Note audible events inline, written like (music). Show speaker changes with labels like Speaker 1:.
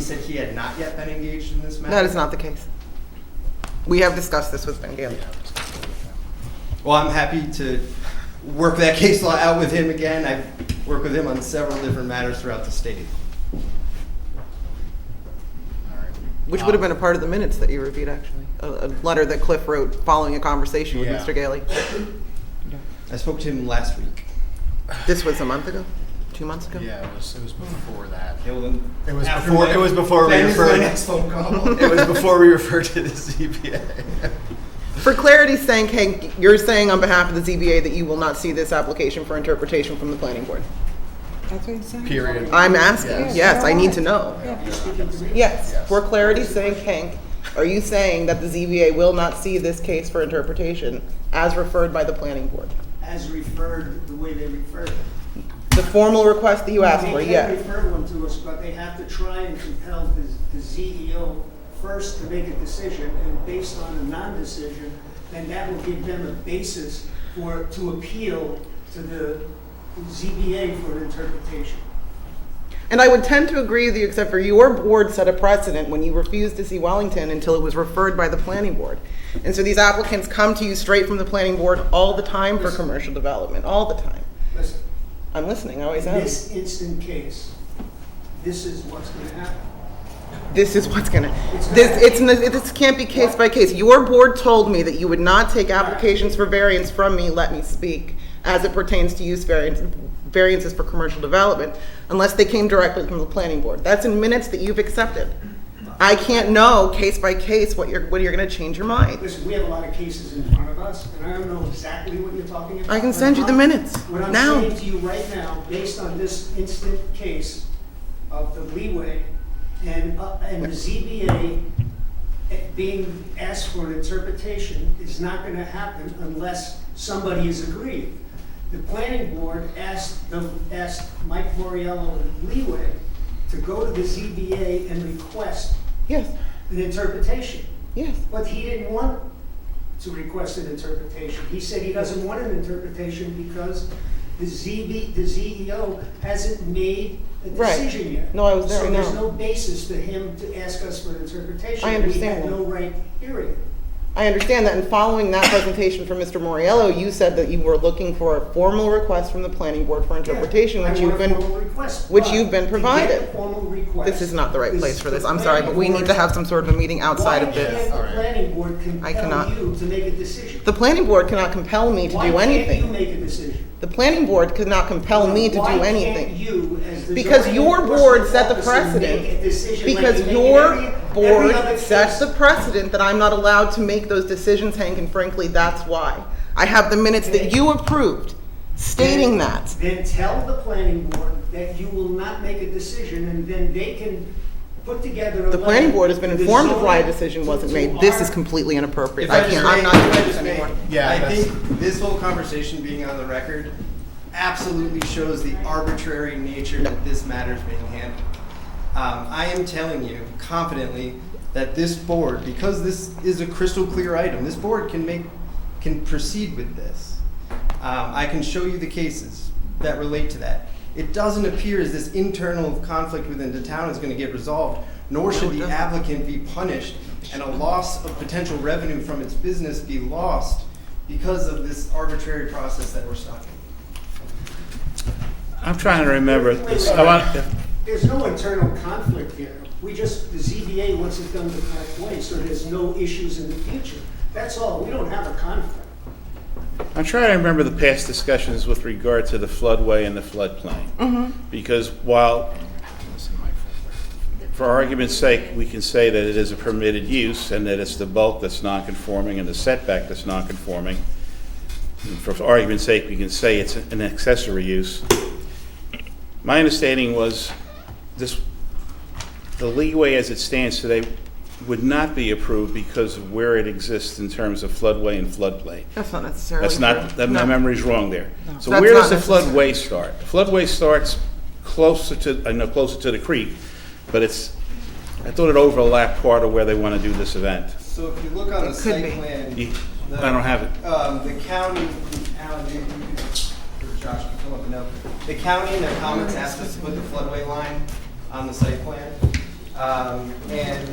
Speaker 1: said he had not yet been engaged in this matter?
Speaker 2: That is not the case. We have discussed this with Ben Gailey.
Speaker 1: Well, I'm happy to work that (laughs) case law out with him again. I've worked with him on several different matters throughout the state.
Speaker 2: Which would have
Speaker 3: Um,
Speaker 2: been a part of the minutes that you reviewed, actually. A, a letter that Cliff wrote following a conversation with
Speaker 3: Yeah.
Speaker 2: Mr. Gailey.
Speaker 1: I spoke to him last week.
Speaker 2: This was a month ago? Two months ago?
Speaker 3: Yeah, it was, it was before that.
Speaker 1: It was,
Speaker 3: It was before- it was before we
Speaker 1: Ben is my
Speaker 3: referred-
Speaker 1: next phone call. (laughs)
Speaker 3: It was before we referred to
Speaker 2: (laughs)
Speaker 3: the ZBA.
Speaker 2: For clarity's sake, Hank, you're saying on behalf of the ZBA that you will not see this application for interpretation from the planning board?
Speaker 4: That's what he's saying.
Speaker 3: Period.
Speaker 2: I'm asking,
Speaker 3: Yes.
Speaker 2: yes, I need to know.
Speaker 4: Yeah, he's speaking to me.
Speaker 2: Yes,
Speaker 3: Yes.
Speaker 2: for clarity's sake, Hank, are you saying that the ZBA will not see this case for interpretation as referred by the planning board?
Speaker 5: as referred, the way they refer them.
Speaker 2: The formal request that you asked for,
Speaker 5: They
Speaker 2: yes.
Speaker 5: can refer one to us, but they have to try and compel the the CEO first to make a decision, and based on a non-decision, then that will give them a basis for, to appeal to the ZBA for an interpretation.
Speaker 2: And I would tend to agree with you, except for your board set a precedent when you refused to see Wellington until it was referred by the planning board. And so these applicants come to you straight from the planning board all the time for commercial development, all the time.
Speaker 5: Listen,
Speaker 2: I'm listening, I
Speaker 5: in
Speaker 2: always am.
Speaker 5: this instant case, this is what's gonna happen.
Speaker 2: This is what's gonna,
Speaker 5: It's
Speaker 2: this,
Speaker 5: not-
Speaker 2: it's, n- this can't be case by case. Your board told me that you would not take applications for variance from me, let me speak, as it pertains to use variance, variances for commercial development, unless they came directly from the planning board. That's in minutes that you've accepted. I can't know case by case what you're, what you're gonna change your mind.
Speaker 5: Listen, we have a lot of cases in front of us, and I don't know exactly what you're talking about.
Speaker 2: I can send you the
Speaker 5: But I'm-
Speaker 2: minutes,
Speaker 5: What I'm
Speaker 2: now.
Speaker 5: saying to you right now, based on this instant case of the leeway and, uh, and the ZBA being asked for an interpretation is not gonna happen unless somebody is aggrieved. The planning board asked the, asked Mike Moriello and leeway to go to the ZBA and request
Speaker 2: Yes,
Speaker 5: an interpretation.
Speaker 2: yes.
Speaker 5: But he didn't want to request an interpretation. He said he doesn't want an interpretation because the ZB, the ZEO hasn't made a
Speaker 2: Right.
Speaker 5: decision yet.
Speaker 2: No, I was there, I
Speaker 5: So there's
Speaker 2: know.
Speaker 5: no basis for him to ask us for an interpretation.
Speaker 2: I understand
Speaker 5: We
Speaker 2: that.
Speaker 5: had no right hearing it.
Speaker 2: I understand that, and following that presentation from Mr. Moriello, you said that you were looking for a formal request from the planning board for interpretation,
Speaker 5: Yeah,
Speaker 2: which you've
Speaker 5: I want a
Speaker 2: been
Speaker 5: formal request.
Speaker 2: which
Speaker 5: but
Speaker 2: you've been
Speaker 5: to get
Speaker 2: provided.
Speaker 5: the formal request,
Speaker 2: This is not the right place for this. I'm
Speaker 5: the
Speaker 2: sorry, but we
Speaker 5: planning
Speaker 2: need to have
Speaker 5: board-
Speaker 2: some sort of a meeting outside of
Speaker 5: Why
Speaker 2: this.
Speaker 5: can't the planning board
Speaker 2: I cannot-
Speaker 5: compel you to make a decision?
Speaker 2: The planning board cannot compel me to do
Speaker 5: Why
Speaker 2: anything.
Speaker 5: can't you make a decision?
Speaker 2: The planning board could not compel me to do
Speaker 5: Why can't
Speaker 2: anything.
Speaker 5: you, as the
Speaker 2: Because
Speaker 5: zoning
Speaker 2: your
Speaker 5: enforcement
Speaker 2: board set the
Speaker 5: officer,
Speaker 2: precedent.
Speaker 5: make a decision like
Speaker 2: Because
Speaker 5: you make in
Speaker 2: your
Speaker 5: every- every
Speaker 2: board
Speaker 5: other
Speaker 2: sets
Speaker 5: case?
Speaker 2: the precedent that I'm not allowed to make those decisions, Hank, and frankly, that's why. I have the minutes that you approved stating that.
Speaker 5: Then tell the planning board that you will not make a decision, and then they can put together a.
Speaker 2: The planning board has been
Speaker 5: letter to the
Speaker 2: informed of why a
Speaker 5: zoning-
Speaker 2: decision
Speaker 5: to-
Speaker 2: wasn't
Speaker 5: to
Speaker 2: made. This
Speaker 5: our-
Speaker 2: is completely inappropriate.
Speaker 1: If
Speaker 2: I
Speaker 1: just
Speaker 2: can't, I'm
Speaker 1: may-
Speaker 2: not
Speaker 1: if I
Speaker 2: doing this
Speaker 1: just may,
Speaker 2: anymore.
Speaker 3: Yeah,
Speaker 1: I
Speaker 3: that's-
Speaker 1: think this whole conversation being on the record absolutely shows the arbitrary nature that this matter is being handled. Um, I am telling you confidently that this board, because this is a crystal clear item, this board can make, can proceed with this. Um, I can show you the cases that relate to that. It doesn't appear as this internal conflict within the town is going to get resolved, nor should
Speaker 2: it
Speaker 1: the
Speaker 2: doesn't.
Speaker 1: applicant be punished and a loss of potential revenue from its business be lost because of this arbitrary process that we're stopping.
Speaker 6: I'm trying to remember
Speaker 5: Wait, wait,
Speaker 6: this.
Speaker 5: wait.
Speaker 6: I want-
Speaker 5: There's no internal conflict here. We just, the ZBA wants it done the correct way, so there's no issues in the future. That's all. We don't have a conflict.
Speaker 6: I'm trying to remember the past discussions with regard to the floodway and the floodplain. Because while, for argument's sake, we can say that it is a permitted use and that it's the bulk that's non-conforming and the setback that's non-conforming. And For argument's sake, we can say it's an accessory use. My understanding was this, the leeway as it stands today would not be approved because of where it exists in terms of floodway and floodplain.
Speaker 2: That's not necessarily
Speaker 6: That's not,
Speaker 2: true.
Speaker 6: that- my
Speaker 2: No.
Speaker 6: memory's wrong there. So
Speaker 2: That's
Speaker 6: where
Speaker 2: not
Speaker 6: does the
Speaker 2: necessary.
Speaker 6: floodway start? The Floodway starts closer to, I know closer to the creek, but it's, I thought it overlapped part of where they want to do this event.
Speaker 1: So if you look on the
Speaker 2: It could
Speaker 1: site
Speaker 2: be.
Speaker 1: plan.
Speaker 6: You-
Speaker 1: the-
Speaker 6: I don't have it.
Speaker 1: Um, the county, Alan, you, you could- or Josh can come up and help. The county in their comments asked us to put the floodway line on the site plan. Um, Um, And